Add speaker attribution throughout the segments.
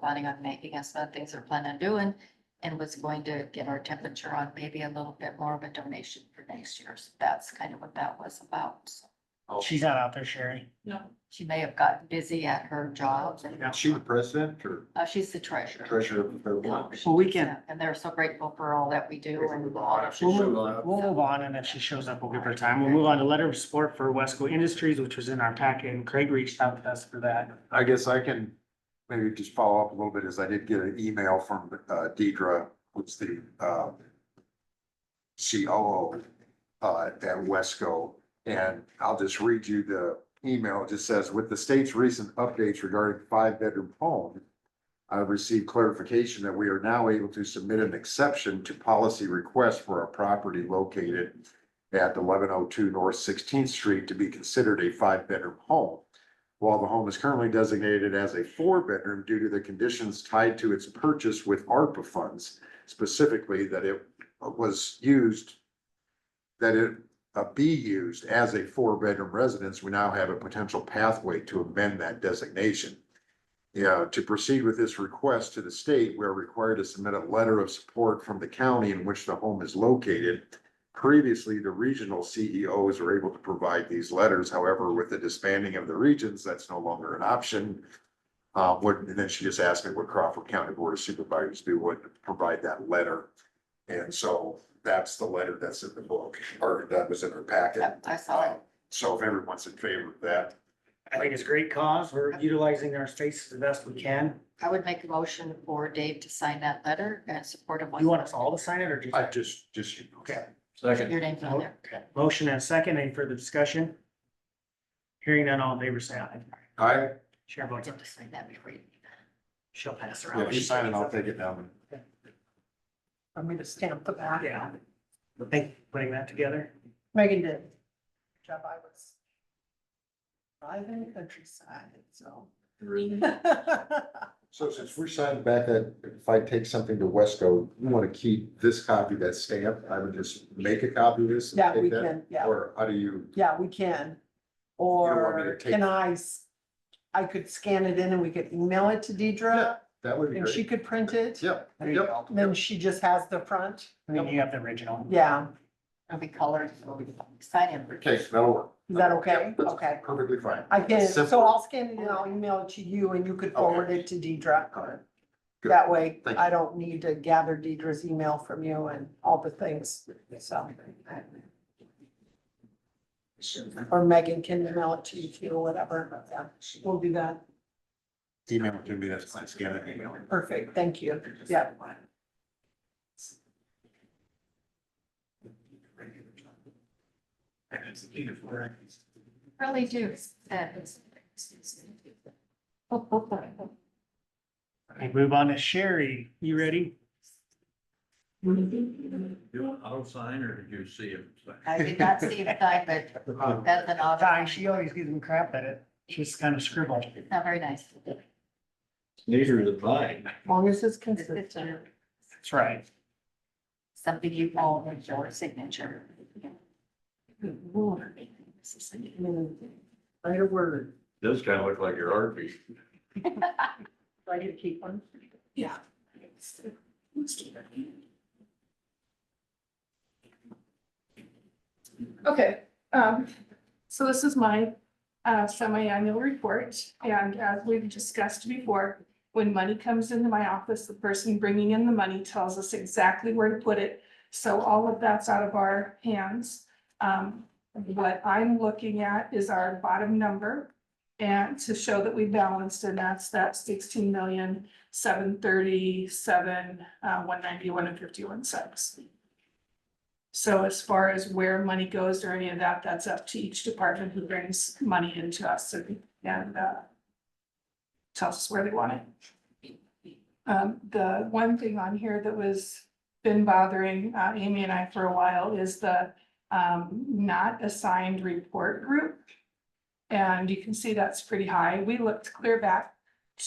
Speaker 1: planning on making and some of the things they're planning on doing. And was going to get our temperature on maybe a little bit more of a donation for next year. So that's kind of what that was about. So
Speaker 2: She's not out there, Sherry.
Speaker 1: She may have gotten busy at her job and
Speaker 3: She the president or
Speaker 1: uh, she's the treasurer. Um,
Speaker 3: treasurer of her board?
Speaker 2: Well, we can-
Speaker 1: uh, And they're so grateful for all that we do and all of
Speaker 3: She
Speaker 2: We'll
Speaker 3: showed
Speaker 2: move
Speaker 3: up.
Speaker 2: we'll move on and if she shows up, we'll give her time. We'll move on to letter of support for Wesco Industries, which was in our packet and Craig reached out to us for that.
Speaker 3: I guess I can maybe just follow up a little bit, as I did get an email from uh, Deidre, who's the uh, COO uh, at Wesco, and I'll just read you the email. It just says, with the state's recent updates regarding five-bedroom home, I've received clarification that we are now able to submit an exception to policy request for a property located at eleven oh two North Sixteenth Street to be considered a five-bedroom home while the home is currently designated as a four-bedroom due to the conditions tied to its purchase with ARPA funds, specifically that it was used, that it uh, be used as a four-bedroom residence, we now have a potential pathway to amend that designation. Yeah, to proceed with this request to the state, we're required to submit a letter of support from the county in which the home is located. Previously, the regional CEOs were able to provide these letters. However, with the disbanding of the regions, that's no longer an option. Uh, what, and then she just asked me would Crawford County Board of Supervisors do, would provide that letter. And so that's the letter that's in the book, or that was in her packet.
Speaker 1: that. I saw it.
Speaker 3: So if everyone's in favor of that,
Speaker 2: I think it's a great cause. We're utilizing our spaces the best we can.
Speaker 1: I would make a motion for Dave to sign that letter and support of.
Speaker 2: You want us all to sign it or just?
Speaker 3: I just, just.
Speaker 2: Okay.
Speaker 1: Your name's on there.
Speaker 2: Okay. Motion and second. Any further discussion? Hearing none, all in favor, say aye.
Speaker 3: I,
Speaker 2: Chair
Speaker 1: I
Speaker 2: votes aye.
Speaker 1: have to sign that before you.
Speaker 2: She'll pass around.
Speaker 3: if you sign it, I'll take it down.
Speaker 4: I'm gonna stamp the back.
Speaker 2: Yeah. Thank you for putting that together.
Speaker 4: Megan did. Good Job I was. Driving countryside, so.
Speaker 3: So since we're signing back, that if I take something to Wesco, you want to keep this copy, that stamp, I would just make a copy of this? and
Speaker 4: Yeah,
Speaker 3: take
Speaker 4: we
Speaker 3: that?
Speaker 4: can, yeah,
Speaker 3: Or how do you,
Speaker 4: yeah, we can.
Speaker 3: want me to
Speaker 4: Or
Speaker 3: take
Speaker 4: can I, s- I could scan it in and we could email it to Deidre
Speaker 3: that would be
Speaker 4: and she
Speaker 3: great.
Speaker 4: could print it.
Speaker 3: Yep,
Speaker 2: There you
Speaker 3: yep.
Speaker 2: go.
Speaker 4: Then she just has the front.
Speaker 2: And then you have the original.
Speaker 4: Yeah,
Speaker 1: It'll be colored, it'll be sign it.
Speaker 3: Okay, that'll work.
Speaker 4: is that okay?
Speaker 3: Yep, that's
Speaker 4: Okay.
Speaker 3: Perfectly fine.
Speaker 4: I can, so
Speaker 3: Simple.
Speaker 4: I'll scan it and I'll email it to you and you could forward it to
Speaker 3: All right.
Speaker 4: Deidre.
Speaker 3: Good.
Speaker 4: That way,
Speaker 3: Thank
Speaker 4: I don't need to gather Deidre's email from you and all the things, so. Or Megan can email it to you too, whatever, yeah, we'll do that,
Speaker 3: Email it to me, that's fine, scan it, email it.
Speaker 4: perfect, thank you, yeah.
Speaker 1: Really do.
Speaker 2: Okay, move on to Sherry. You ready?
Speaker 5: You auto sign or did you see him? sign?
Speaker 1: I did not see it signed, but
Speaker 3: Uh,
Speaker 1: that's an odd.
Speaker 2: Ty, she always gives them crap at it. She's kind of scribbled.
Speaker 1: It's not very nice.
Speaker 5: Neither is mine.
Speaker 4: As long as it's
Speaker 1: It's- it's
Speaker 4: consistent,
Speaker 2: That's right.
Speaker 1: Something you own with your signature.
Speaker 4: I mean, write a word.
Speaker 5: Does kind of look like your RV.
Speaker 4: Do I need to keep one? Yeah.
Speaker 6: Okay, um, so this is my, uh, semi-annual report, and as we've discussed before, when money comes into my office, the person bringing in the money tells us exactly where to put it, so all of that's out of our hands. Um, what I'm looking at is our bottom number, and to show that we balanced, and that's that sixteen million, seven thirty-seven, uh, one ninety-one and fifty-one cents. So as far as where money goes or any of that, that's up to each department who brings money into us and, and, uh, tells us where they want it. Um, the one thing on here that was been bothering, uh, Amy and I for a while is the, um, not assigned report group. And you can see that's pretty high. We looked clear back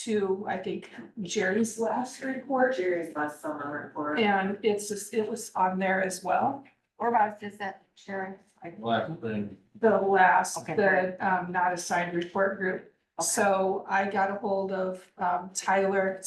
Speaker 6: to, I think, Jerry's last report.
Speaker 7: Jerry's last summer report.
Speaker 6: And it's just, it was on there as well,
Speaker 1: Whereabouts is that, Sharon? I-
Speaker 5: Last thing.
Speaker 6: the last,
Speaker 1: Okay.
Speaker 6: the um not assigned report group.
Speaker 1: Okay.
Speaker 6: So I got a hold of um Tyler